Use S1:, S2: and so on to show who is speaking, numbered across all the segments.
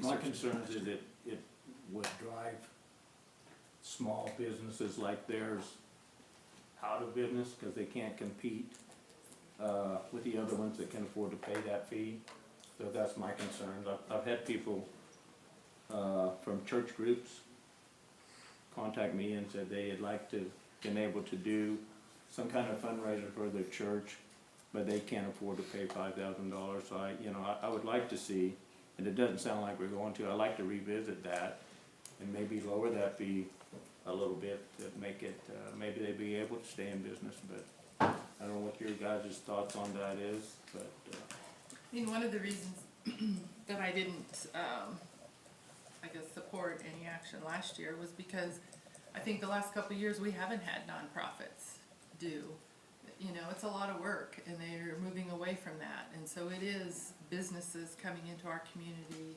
S1: My
S2: such a
S1: concern
S2: cost.
S1: is it, it would drive small businesses like theirs out of business because they can't compete uh, with the other ones that can afford to pay that fee. So that's my concern. I've, I've had people uh, from church groups contact me and said they had liked to, been able to do some kind of fundraiser for their church, but they can't afford to pay five thousand dollars. So I, you know, I, I would like to see and it doesn't sound like we're going to, I'd like to revisit that and maybe lower that fee a little bit to make it, uh, maybe they'd be able to stay in business, but I don't know what your guys' thoughts on that is, but, uh,
S3: I mean, one of the reasons that I didn't, um, I guess, support any action last year was because I think the last couple of years, we haven't had nonprofits do. You know, it's a lot of work and they're moving away from that. And so it is businesses coming into our community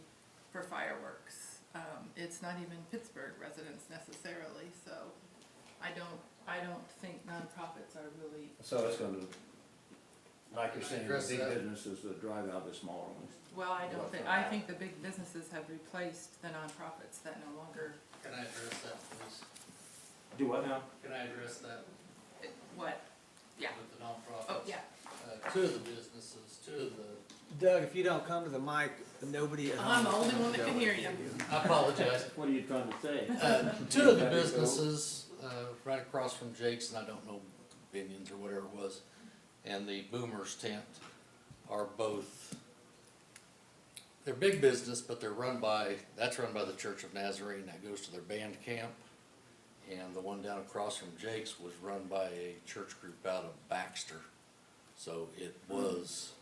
S3: for fireworks. Um, it's not even Pittsburgh residents necessarily, so I don't, I don't think nonprofits are really,
S2: So it's gonna, like you're saying,
S4: Address
S2: big
S4: that.
S2: business,
S1: businesses that drive out the smaller ones.
S3: well, I don't think, I think the big businesses have replaced the nonprofits that no longer
S4: Can I address that, please?
S1: Do what now?
S4: Can I address that
S3: What? Yeah.
S4: with the nonprofits?
S3: Oh, yeah.
S4: Uh, two of the businesses, two of the,
S5: Doug, if you don't come to the mic, nobody um, at
S3: I'm
S5: home.
S3: the only one that can hear you.
S4: I apologize,
S1: What are you trying to say?
S4: Uh, Two of the businesses, uh, right across from Jake's, and I don't know, Binion's or whatever it was, and the Boomer's Tent are both, they're big business, but they're run by, that's run by the Church of Nazarene, that goes to their band camp. And the one down across from Jake's was run by a church group out of Baxter. So it was,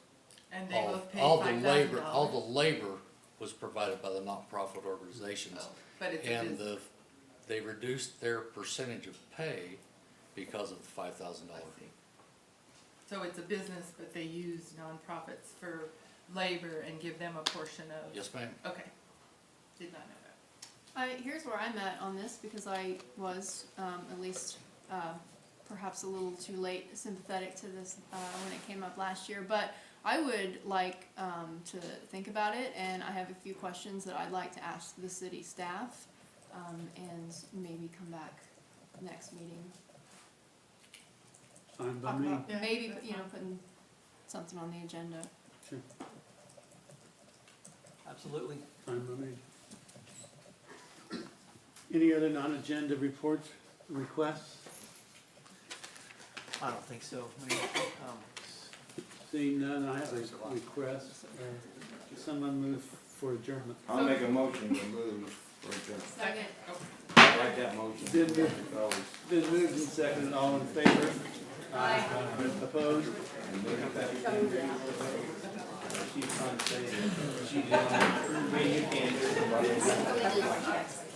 S3: And they
S4: all,
S3: both pay
S4: all the
S3: five thousand
S4: labor, all the
S3: dollars.
S4: labor was provided by the nonprofit organizations.
S3: Oh, But it's a
S4: And
S3: business.
S4: the, they reduced their percentage of pay because of the five thousand dollar.
S3: I see. So it's a business, but they use nonprofits for labor and give them a portion of,
S4: Yes, ma'am.
S3: okay. Did not know that.
S6: I, here's where I'm at on this because I was um, at least uh, perhaps a little too late sympathetic to this uh, when it came up last year, but I would like um, to think about it, and I have a few questions that I'd like to ask the city staff, um, and maybe come back next meeting.
S7: Fine by
S6: Talk
S7: me.
S6: about
S3: Yeah,
S6: maybe
S3: that's
S6: you know
S3: fine.
S6: putting something on the agenda.
S5: Absolutely.
S7: Fine by me. Any other non-agenda reports, requests?
S5: I don't think so. I mean, um,
S7: Seeing none, I have a request. Uh, Someone move for adjournment.
S1: I'll make a motion to move for adjournment.
S6: Second.
S3: Oh.
S1: I like that motion.
S7: Did we-
S1: It's always-
S7: Been moved and seconded, all in favor? Aye. Opposed?
S1: She's trying to say that she's, uh, you can't.